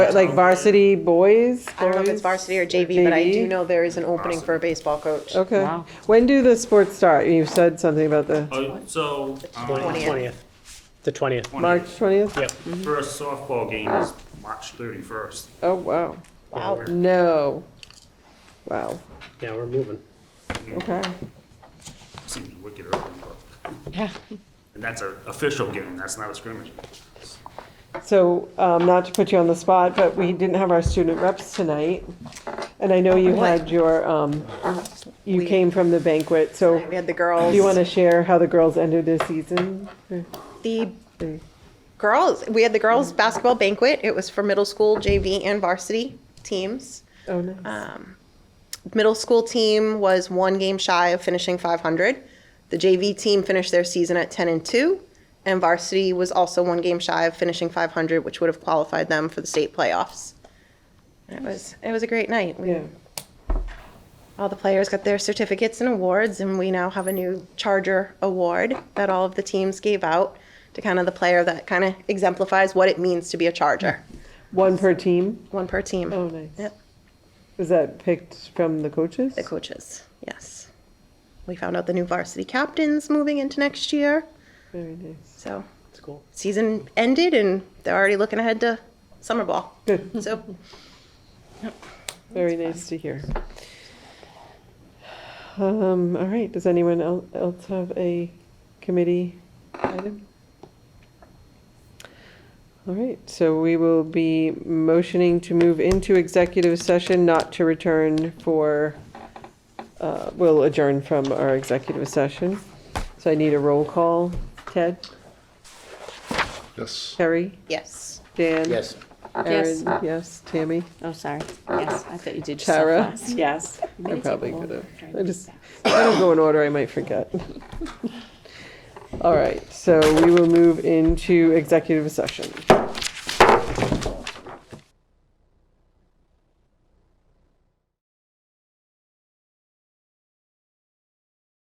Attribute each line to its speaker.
Speaker 1: But like varsity boys?
Speaker 2: I don't know if it's
Speaker 1: boys?
Speaker 2: varsity or JV, but I
Speaker 1: JV?
Speaker 2: do know there is an opening for a baseball coach.
Speaker 1: Okay.
Speaker 3: Wow.
Speaker 1: When do the sports start? You said something about the
Speaker 4: Oh, so, um,
Speaker 2: 20th.
Speaker 3: Twentieth, the twentieth.
Speaker 1: March 20th?
Speaker 3: Yep.
Speaker 4: first softball game is March thirty-first.
Speaker 1: Oh, wow.
Speaker 2: Wow.
Speaker 1: No. Wow.
Speaker 3: Yeah, we're moving.
Speaker 1: Okay.
Speaker 4: Seems wicked early, but. And that's an official game, that's not a scrimmage.
Speaker 1: So, um, not to put you on the spot, but we didn't have our student reps tonight. And I know you had your, um, you came from the banquet, so
Speaker 2: We had the
Speaker 1: do you want
Speaker 2: girls,
Speaker 1: to share how the girls ended their season?
Speaker 2: the girls, we had the
Speaker 1: Mm.
Speaker 2: girls basketball banquet. It was for middle school, JV and varsity teams.
Speaker 1: Oh, nice.
Speaker 2: Um, middle school team was one game shy of finishing 500. The JV team finished their season at 10 and 2, and varsity was also one game shy of finishing 500, which would have qualified them for the state playoffs. And it was it was a great night. We,
Speaker 1: Yeah.
Speaker 2: All the players got their certificates and awards, and we now have a new Charger Award that all of the teams gave out to kind of the player that kind of exemplifies what it means to be a Charger.
Speaker 1: One per team?
Speaker 2: One per team.
Speaker 1: Oh, nice.
Speaker 2: Yep.
Speaker 1: Was that picked from the coaches?
Speaker 2: The coaches, yes. We found out the new varsity captains moving into next year.
Speaker 1: Very nice.
Speaker 2: So
Speaker 3: It's cool.
Speaker 2: season ended and they're already looking ahead to summer ball.
Speaker 1: Good.
Speaker 2: So
Speaker 1: Very nice to hear. Um, all right, does anyone el- else have a committee item? All right, so we will be motioning to move into executive session, not to return for, uh, we'll adjourn from our executive session. So I need a roll call. Ted?
Speaker 5: Yes.
Speaker 1: Terry?
Speaker 2: yes.
Speaker 1: Dan?
Speaker 5: Yes.
Speaker 1: Erin? Yes. Tammy?
Speaker 6: Oh, sorry. Yes, I thought you did yourself
Speaker 1: Tara?
Speaker 6: last. Yes.
Speaker 1: I probably could have. I just, if I don't go in order, I might forget. All right, so we will move into executive session.